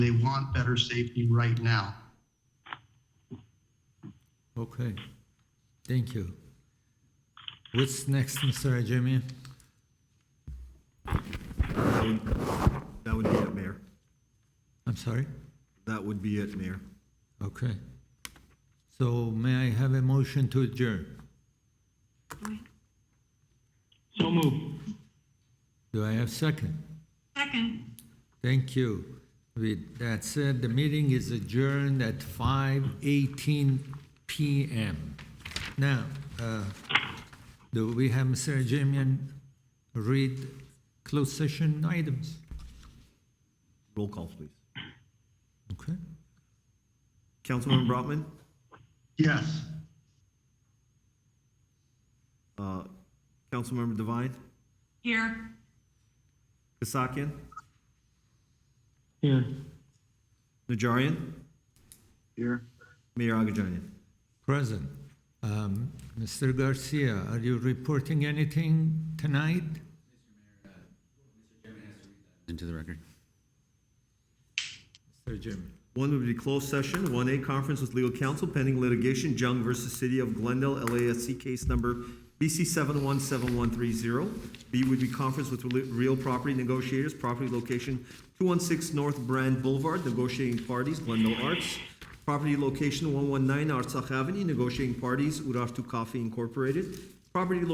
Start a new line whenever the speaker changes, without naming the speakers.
They want better safety right now.
Okay, thank you. What's next, Mr. Ajemian?
That would- That would be it, Mayor.
I'm sorry?
That would be it, Mayor.
Okay. So may I have a motion to adjourn?
So move.
Do I have second?
Second.
Thank you. With that said, the meeting is adjourned at five eighteen PM. Now, uh, do we have Mr. Ajemian read closed session items?
Roll call, please.
Okay,
Councilman Brotman,
Yes.
uh, Councilmember Devine,
Here.
Kasakian,
Here.
Najarian,
Here.
Mayor Agajanian.
present. Um, Mr. Garcia, are you reporting anything tonight?
uh, into the record.
Mr. Ajemian?
One would be closed session, one A conference with legal counsel pending litigation, Jung versus City of Glendale, LASC case number BC seven one seven one three zero. B would be conference with rel- real property negotiators, property location two one six North Brand Boulevard, negotiating parties, Glendale Arts. Property location one one nine Artsakh Avenue, negotiating parties, Urartu Coffee Incorporated. Property